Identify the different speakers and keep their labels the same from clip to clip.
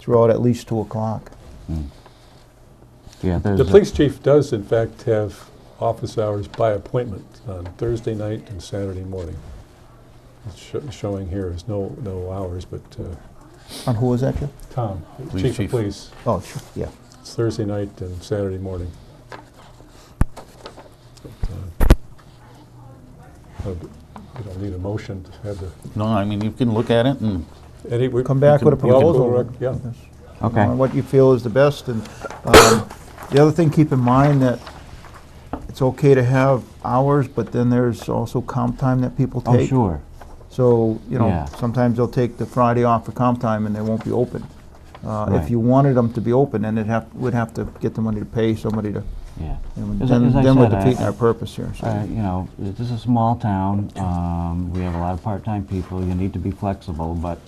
Speaker 1: throughout at least 2 o'clock.
Speaker 2: Mm. Yeah, there's.
Speaker 3: The
Speaker 2: a-
Speaker 3: police chief does in fact have office hours by appointment on Thursday night and Saturday morning. It's sho- Showing here is no, no hours, but uh,
Speaker 1: And who was that, Joe?
Speaker 3: Tom,
Speaker 4: Police
Speaker 3: chief of
Speaker 4: chief.
Speaker 3: police,
Speaker 1: Oh, sure, yeah.
Speaker 3: it's Thursday night and Saturday morning. Uh, We don't need a motion to have the,
Speaker 4: No, I mean, you can look at it and
Speaker 3: Eddie, we're.
Speaker 1: Come back
Speaker 4: can-
Speaker 1: with a
Speaker 4: we can-
Speaker 1: proposal.
Speaker 3: Yeah.
Speaker 1: You know,
Speaker 2: Okay,
Speaker 1: and What you feel is the best, and um, the other thing, keep in mind that it's okay to have hours, but then there's also comp time that people take.
Speaker 2: oh, sure.
Speaker 1: So, you know,
Speaker 2: Yeah.
Speaker 1: sometimes they'll take the Friday off for comp time and they won't be open. Uh, If
Speaker 2: Right.
Speaker 1: you wanted them to be open, then it'd have, we'd have to get the money to pay somebody to,
Speaker 2: Yeah.
Speaker 1: and
Speaker 2: As I-
Speaker 1: then
Speaker 2: as I
Speaker 1: then we're
Speaker 2: said, I-
Speaker 1: defeating
Speaker 2: I-
Speaker 1: our purpose here, so.
Speaker 2: Uh, you know, this is a small town. Um, we have a lot of part-time people. You need to be flexible, but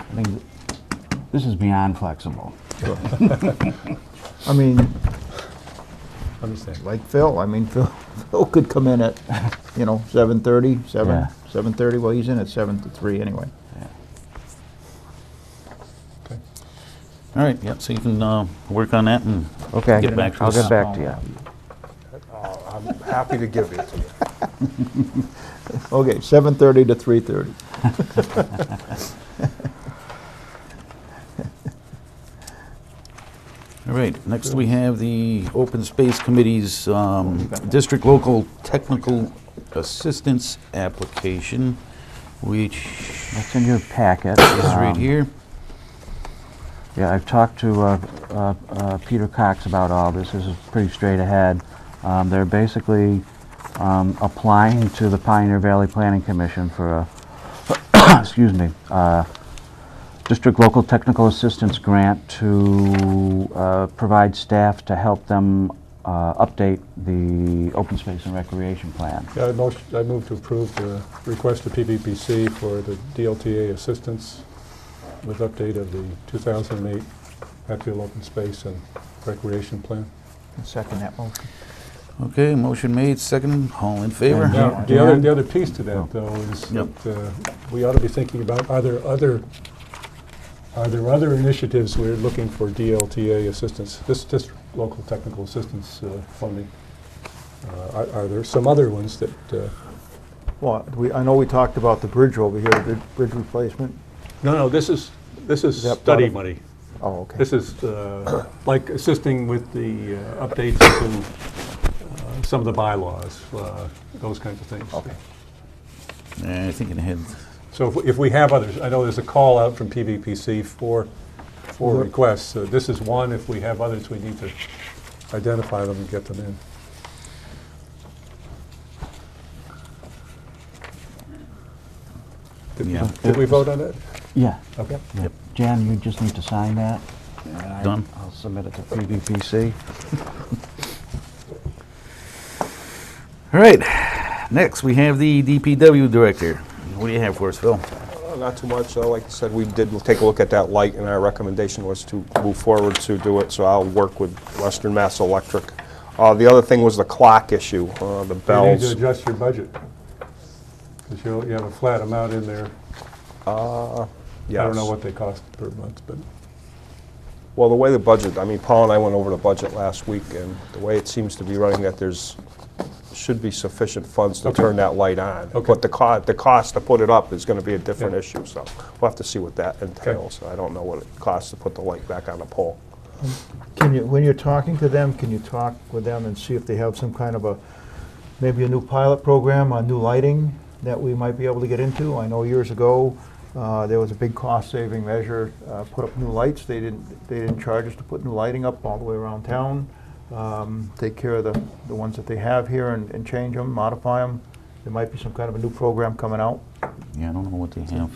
Speaker 2: I think th- this is beyond flexible.
Speaker 1: I mean,
Speaker 3: Understand.
Speaker 1: like Phil, I mean, Phil, Phil could come in at, you know, seven thirty, seven,
Speaker 2: Yeah.
Speaker 1: seven thirty, well, he's in at seven to three anyway.
Speaker 4: All right, yeah, so you can uh, work on that and
Speaker 2: Okay,
Speaker 4: Get back to
Speaker 2: I'll
Speaker 4: us.
Speaker 2: get back to you.
Speaker 5: I'm happy to give it to you.
Speaker 1: Okay, seven thirty to three thirty.
Speaker 4: All right, next we have the Open Space Committee's um, District Local Technical Assistance Application, which
Speaker 2: That's in your packet. Um,
Speaker 4: is right here.
Speaker 2: Yeah, I've talked to uh, uh, uh, Peter Cox about all this. This is pretty straight ahead. Um, They're basically um, applying to the Pioneer Valley Planning Commission for a, excuse me, uh, District Local Technical Assistance Grant to uh, provide staff to help them uh, update the open space and recreation plan.
Speaker 3: Yeah, I motion, I move to approve the request to PVPC for the DLTA assistance with update of the 2008 Hatfield Open Space and Recreation Plan.
Speaker 1: Second that motion.
Speaker 4: Okay, motion made, second, all in favor?
Speaker 2: Yeah.
Speaker 3: Now, the other, the other piece to that, though, is
Speaker 4: Yep.
Speaker 3: that uh, we ought to be thinking about, are there other, are there other initiatives we're looking for DLTA assistance, this, this local technical assistance uh, funding? Uh, Are are there some other ones that, uh,
Speaker 1: Well, we, I know we talked about the bridge over here, the bridge replacement.
Speaker 3: no, no, this is, this is
Speaker 1: Is that part
Speaker 3: study
Speaker 1: of-
Speaker 3: money.
Speaker 1: Oh, okay.
Speaker 3: This is uh, like assisting with the uh, updates to uh, some of the bylaws, uh, those kinds of things.
Speaker 1: Okay.
Speaker 4: Yeah, I think it had,
Speaker 3: So if- if we have others, I know there's a call out from PVPC for, for
Speaker 1: Mhm.
Speaker 3: requests. So This is one. If we have others, we need to identify them and get them in. Did-
Speaker 4: Yeah.
Speaker 3: Did we vote on that?
Speaker 2: Yeah.
Speaker 3: Okay.
Speaker 2: Jan, you just need to sign that. and I-
Speaker 4: Done.
Speaker 2: I'll submit it to PVPC.
Speaker 4: all right, next we have the DPW Director. What do you have for us, Phil?
Speaker 5: Uh, Not too much, Uh, like I said, we did take a look at that light, and our recommendation was to move forward to do it, so I'll work with Western Mass Electric. Uh, The other thing was the clock issue, uh, the
Speaker 3: You need to
Speaker 5: bells.
Speaker 3: adjust your budget. Because you have a flat amount in there. I don't know
Speaker 5: Yes.
Speaker 3: what they cost per month, but
Speaker 5: Well, the way the budget, I mean, Paul and I went over the budget last week, and the way it seems to be running, that there's, should be sufficient funds to
Speaker 3: Okay.
Speaker 5: turn that light on.
Speaker 3: Okay.
Speaker 5: But the co, the cost to put it up is gonna be a different
Speaker 3: Yeah.
Speaker 5: issue, so we'll have to see what that entails. I don't know what it costs to put the light back on the pole.
Speaker 1: Can you, when you're talking to them, can you talk with them and see if they have some kind of a, maybe a new pilot program on new lighting that we might be able to get into? I know years ago, uh, there was a big cost-saving measure, uh, put up new lights. They didn't, they didn't charge us to put new lighting up all the way around town. Um, Take care of the, the ones that they have here and, and change them, modify them. There might be some kind of a new program coming out.
Speaker 4: Yeah, I don't know what they have.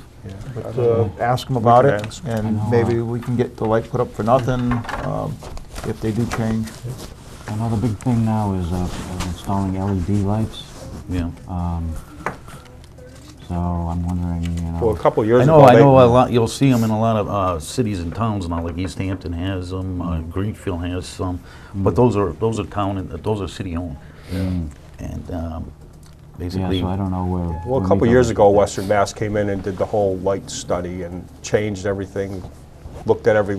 Speaker 1: But uh, ask them about
Speaker 5: can
Speaker 1: it,
Speaker 5: ask.
Speaker 1: and
Speaker 2: know, uh,
Speaker 1: maybe we can get the light put up for nothing um, if they do change.
Speaker 2: Another big thing now is uh, uh, installing LED lights,
Speaker 4: Yeah.
Speaker 2: so I'm wondering, you know.
Speaker 5: Well, a couple years
Speaker 4: I
Speaker 5: ago.
Speaker 4: know, I
Speaker 5: they-
Speaker 4: know a lot, you'll see them in a lot of uh, cities and towns now, like East Hampton has them, uh,
Speaker 5: Mm-hmm.
Speaker 4: Greenfield has some, but those are, those are town, and those are city-owned. And um,
Speaker 2: Yeah,
Speaker 4: basically,
Speaker 2: so I don't know where.
Speaker 5: Well,
Speaker 2: where
Speaker 5: a couple
Speaker 2: we go.
Speaker 5: years ago, Western Mass came in and did the whole light study and changed everything, looked at every